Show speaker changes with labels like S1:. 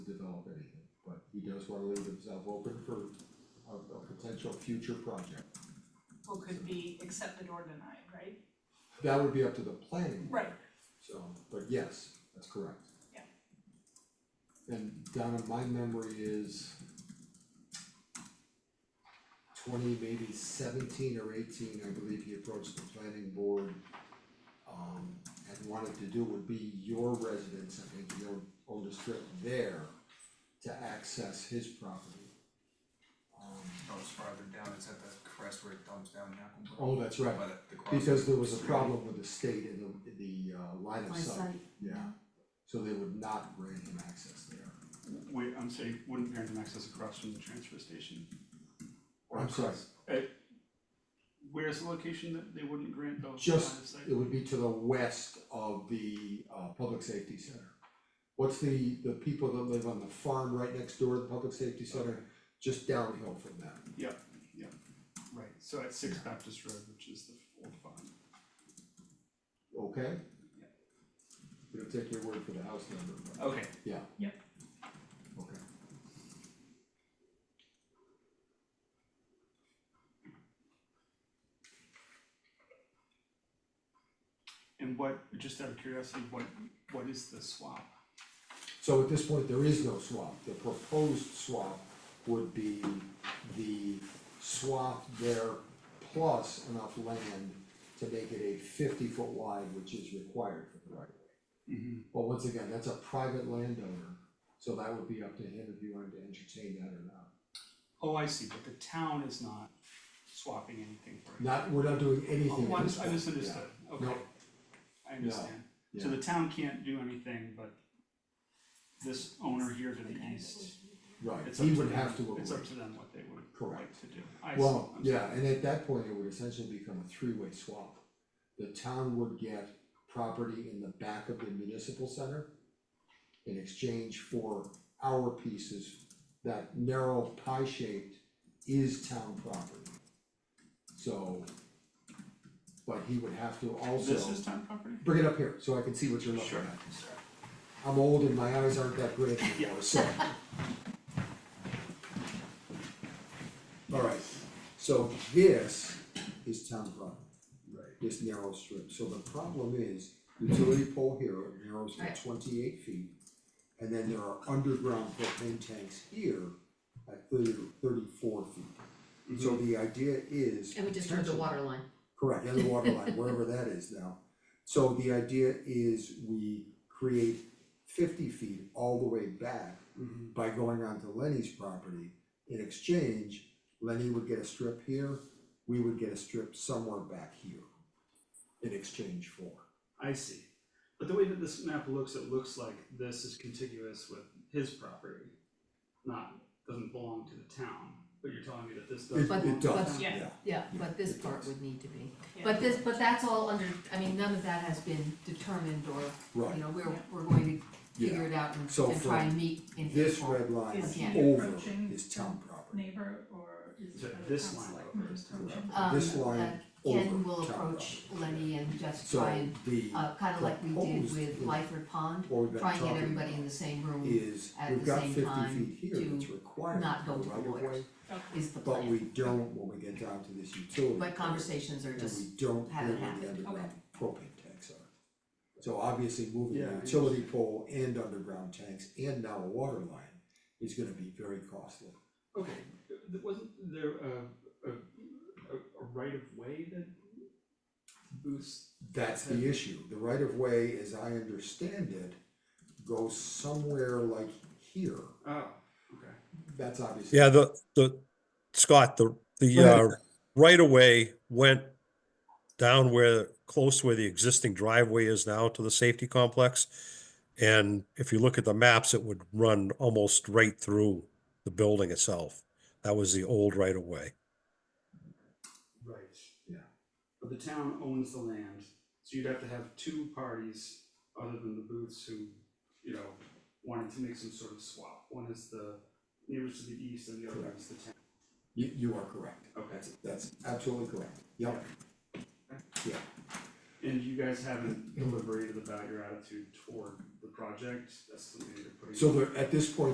S1: wanna leave themselves open for a, a potential future project.
S2: What could be accepted or denied, right?
S1: That would be up to the planning, board,
S2: Right.
S1: so, but yes, that's correct.
S2: Yeah.
S1: And Donna, my memory is twenty, maybe seventeen or eighteen, I believe he approached the planning board um, and wanted to do would be your residence, I think, your oldest strip there to access his property. Um,
S3: Oh, it's farther down, it's at the crest where it dumps down Hackleboro.
S1: oh, that's right,
S3: By the, the cross.
S1: because there was a problem with the state in the, the uh, line of
S4: My
S1: sight,
S4: site.
S1: yeah. So they would not grant him access there.
S5: Wait, I'm sorry, wouldn't Parentum access across from the transfer station? Or
S1: I'm sorry.
S5: across- eh, Where's the location that they wouldn't grant those line of
S1: Just-
S5: sight?
S1: It would be to the west of the uh public safety center. What's the the people that live on the farm right next door to the public safety center, just downhill from that.
S5: Yep, yep, right, so at Six Baptist Road, which is the old farm.
S1: okay? We don't take your word for the house number, but,
S5: Okay,
S1: yeah.
S2: Yep.
S1: Okay.
S5: and what, just out of curiosity, what, what is the swap?
S1: So at this point, there is no swap, the proposed swap would be the swap there plus enough land to make it a fifty foot wide, which is required for the right of way.
S5: Mm-hmm.
S1: But once again, that's a private landowner, so that would be up to him if you wanted to entertain that or not.
S5: Oh, I see, but the town is not swapping anything for it.
S1: Not, we're not doing anything
S5: Oh, I
S1: at this
S5: mis- I
S1: point,
S5: misunderstood, okay.
S1: No.
S5: I understand, so
S1: Yeah.
S5: the town can't do anything, but this owner here to the east,
S1: yeah, right,
S5: it's up to
S1: he
S5: them.
S1: would have to
S5: It's up
S1: agree,
S5: to them what they would like
S1: Correct.
S5: to do, I see,
S1: well,
S5: I'm sorry.
S1: yeah, and at that point, it would essentially become a three-way swap. The town would get property in the back of the municipal center in exchange for our pieces, that narrow pie shaped is town property. So, but he would have to also.
S5: This is town property?
S1: Bring it up here, so I can see what you're looking
S5: Sure,
S1: at.
S5: Sorry.
S1: I'm old and my eyes aren't that great anymore, so. Alright, so this is town property. Right. This narrow strip, so the problem is utility pole here it narrows to
S4: Right.
S1: twenty-eight feet. And then there are underground propane tanks here at 30 34 feet. So the idea is.
S4: And we just turned the
S1: potentially-
S4: water line.
S1: Correct, and the water line, wherever that is now. So the idea is we create fifty feet all the way back
S5: Mhm.
S1: by going onto Lenny's property. In exchange, Lenny would get a strip here, we would get a strip somewhere back here. In exchange for.
S5: I see, but the way that this map looks, it looks like this is contiguous with his property, not, doesn't belong to the town, but you're telling me that this does
S1: It
S5: belong
S1: it
S5: to the
S1: does,
S5: town?
S2: Yeah.
S1: yeah,
S4: Yeah, but this
S1: it
S4: part
S1: does.
S4: would need to be.
S2: Yeah.
S4: But this, but that's all under, I mean, none of that has been determined or, you
S1: right,
S4: know, we're,
S2: Yeah.
S4: we're going to figure
S1: yeah.
S4: it out and
S1: So
S4: and try
S1: from
S4: and meet in April.
S1: This red line
S2: Is he
S1: over
S2: approaching
S1: is town property.
S2: Neighbor or is
S5: So
S2: it the
S5: this
S2: town
S5: line
S2: select-
S5: over is town
S2: Mhm.
S5: property.
S4: Um,
S1: This line
S4: uh,
S1: over
S4: Ken will
S1: town
S4: approach
S1: property.
S4: Lenny and just try and,
S1: So the,
S4: uh, kind of like we did
S1: proposed
S4: with
S1: in-
S4: Lyford Pond,
S1: or we've been
S4: try and get
S1: talking
S4: everybody in
S1: about
S4: the same room
S1: is
S4: at
S1: we've
S4: the
S1: got
S4: same
S1: fifty
S4: time
S1: feet here that's
S4: to
S1: required
S4: not
S1: for
S4: go
S1: the
S4: to the
S1: right of
S4: lawyers.
S1: way,
S2: Okay,
S4: is the
S1: but we
S4: plan.
S1: don't when we get down to this utility.
S4: But conversations are
S1: And
S4: just,
S1: we don't know
S4: haven't
S1: where the
S4: happened.
S1: underground propane tanks are. So obviously moving
S5: Yeah,
S1: the
S5: I
S1: utility pole and underground tanks and now a water line is gonna be very costly.
S5: Okay, th- wasn't there a, a, a, a right of way that boosts?
S1: That's the issue, the right of way, as I understand it, goes somewhere like here,
S5: Oh, okay.
S1: that's obviously.
S6: Yeah, the, the, Scott, the, the,
S1: Go ahead.
S6: uh, right of way went down where, close where the existing driveway is now to the safety complex. And if you look at the maps, it would run almost right through the building itself. That was the old right of way.
S5: Right.
S1: Yeah.
S5: But the town owns the land, so you'd have to have two parties other than the Booths who, you know, wanted to make some sort of swap. One is the neighbors to the east and the other is the town.
S1: You, you are correct,
S5: Okay.
S1: that's, that's absolutely correct, yep,
S5: And you guys haven't deliberated about your attitude toward the project, that's something you're putting.
S1: so there, at this point,